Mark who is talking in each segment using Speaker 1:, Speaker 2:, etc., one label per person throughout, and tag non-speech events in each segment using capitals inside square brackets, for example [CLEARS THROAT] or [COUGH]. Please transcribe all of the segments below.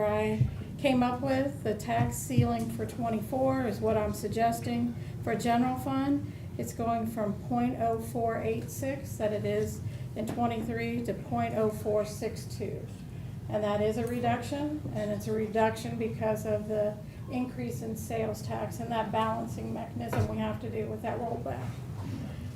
Speaker 1: I came up with, the tax ceiling for twenty-four is what I'm suggesting for general fund. It's going from 0.0486 that it is in twenty-three to 0.0462, And that is a reduction, and it's a reduction because of the increase in sales tax and that balancing mechanism we have to do with that rollback.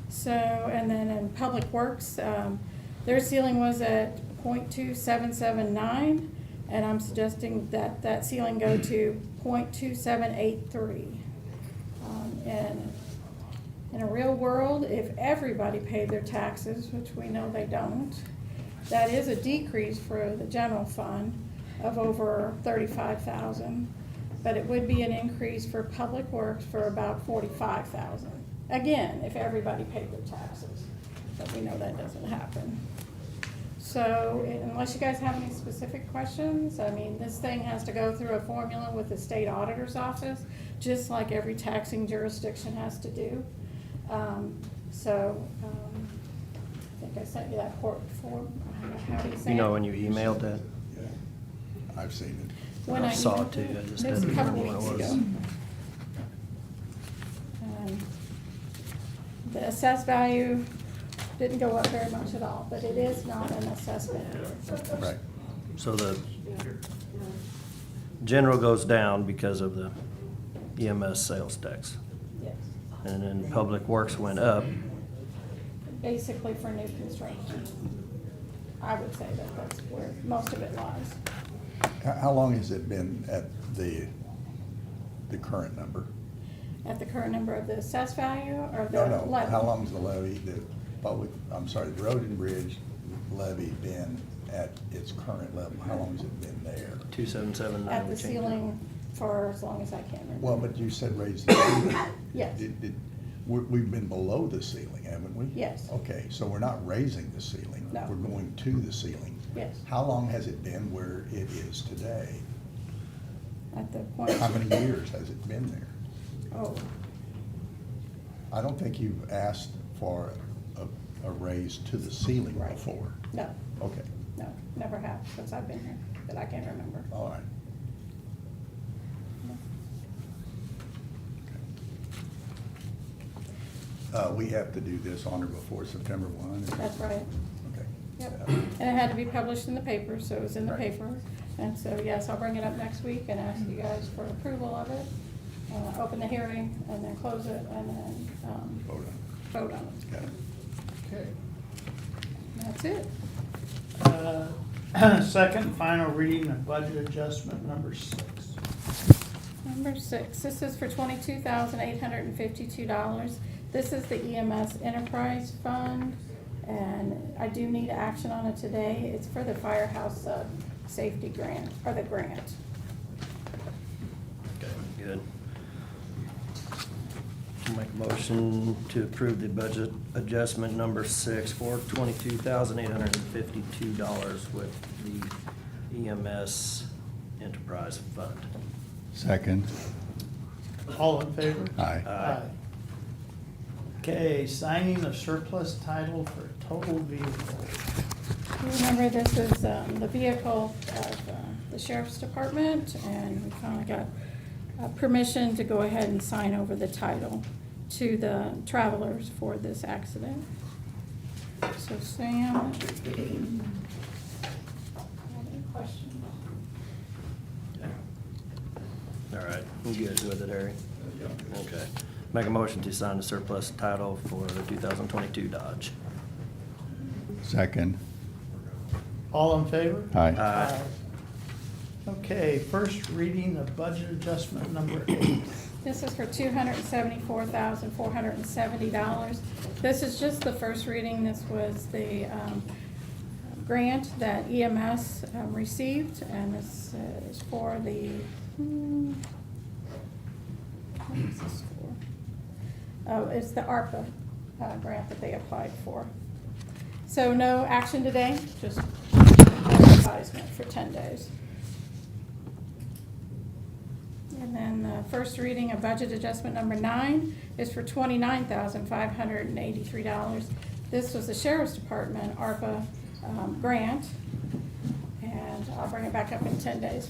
Speaker 1: So, and then in Public Works, um, their ceiling was at 0.2779, and I'm suggesting that that ceiling go to 0.2783. Um, and in a real world, if everybody paid their taxes, which we know they don't, that is a decrease for the general fund of over thirty-five thousand. But it would be an increase for public works for about forty-five thousand. Again, if everybody paid their taxes, but we know that doesn't happen. So unless you guys have any specific questions, I mean, this thing has to go through a formula with the state auditor's office, just like every taxing jurisdiction has to do. Um, So, um, I think I sent you that port form, how do you say it?
Speaker 2: You know, when you emailed that,
Speaker 3: Yeah, I've seen it.
Speaker 1: When
Speaker 2: I saw it too, I just
Speaker 1: It was a
Speaker 2: didn't
Speaker 1: couple
Speaker 2: remember what it
Speaker 1: weeks
Speaker 2: was.
Speaker 1: ago. Um, The assessed value didn't go up very much at all, but it is not an assessment.
Speaker 3: Right.
Speaker 2: so the general goes down because of the EMS sales tax.
Speaker 1: Yes,
Speaker 2: And then public works went up,
Speaker 1: basically for new construction. I would say that that's where most of it lies.
Speaker 3: How, how long has it been at the, the current number?
Speaker 1: At the current number of the assessed value or the
Speaker 3: No, no,
Speaker 1: levy?
Speaker 3: how long's the levy, the public, I'm sorry, the road and bridge levy been at its current level? How long has it been there?
Speaker 2: two seven seven nine.
Speaker 1: At the ceiling for as long as I can remember.
Speaker 3: Well, but you said raise the [COUGHS] ceiling.
Speaker 1: Yes.
Speaker 3: Did- did- we- We've been below the ceiling, haven't we?
Speaker 1: Yes.
Speaker 3: Okay, so we're not raising the ceiling.
Speaker 1: No.
Speaker 3: We're going to the ceiling.
Speaker 1: Yes,
Speaker 3: How long has it been where it is today?
Speaker 1: at the point,
Speaker 3: How many years has it been there?
Speaker 1: oh,
Speaker 3: I don't think you've asked for a, a raise to the ceiling
Speaker 1: Right.
Speaker 3: before.
Speaker 1: no,
Speaker 3: Okay,
Speaker 1: no, never have since I've been here, that I can remember.
Speaker 3: all right. Uh, we have to do this on or before September one? is that-
Speaker 1: That's right.
Speaker 3: Okay.
Speaker 1: Yep. And it had to be published in the paper, so it was in the
Speaker 3: Right.
Speaker 1: paper. And so, yes, I'll bring it up next week and ask you guys for approval of it. Uh, Open the hearing and then close it and then um,
Speaker 3: Vote on
Speaker 1: vote on it.
Speaker 3: it. Got it.
Speaker 4: Okay.
Speaker 1: That's it.
Speaker 4: Uh, [CLEARS THROAT] Second, final reading of budget adjustment number six.
Speaker 1: Number six, this is for twenty-two thousand eight hundred and fifty-two dollars. This is the EMS Enterprise Fund, and I do need action on it today. It's for the firehouse uh, safety grant, or the grant.
Speaker 2: Okay, Good. Make a motion to approve the budget adjustment number six for twenty-two thousand eight hundred and fifty-two dollars with the EMS Enterprise Fund.
Speaker 3: Second.
Speaker 4: All in favor?
Speaker 3: Aye.
Speaker 2: Aye.
Speaker 4: Okay, signing of surplus title for total vehicle.
Speaker 1: Remember, this is um, the vehicle of uh, the sheriff's department, and we finally got uh, permission to go ahead and sign over the title to the travelers for this accident. So Sam. Have any questions?
Speaker 2: All right, you good with it, Harry? Okay. Make a motion to sign the surplus title for the two thousand twenty-two Dodge.
Speaker 3: Second.
Speaker 4: All in favor?
Speaker 3: Aye.
Speaker 2: Aye.
Speaker 4: Okay, first reading of budget adjustment number eight.
Speaker 1: This is for two hundred and seventy-four thousand, four hundred and seventy dollars. This is just the first reading, this was the, um, grant that EMS, um, received, and this uh, is for the, hmm, what is this for? Oh, it's the ARPA, uh, grant that they applied for. So no action today, just advertisement for ten days. And then the first reading of budget adjustment number nine is for twenty-nine thousand five hundred and eighty-three dollars. This was the sheriff's department ARPA um, grant, and I'll bring it back up in ten days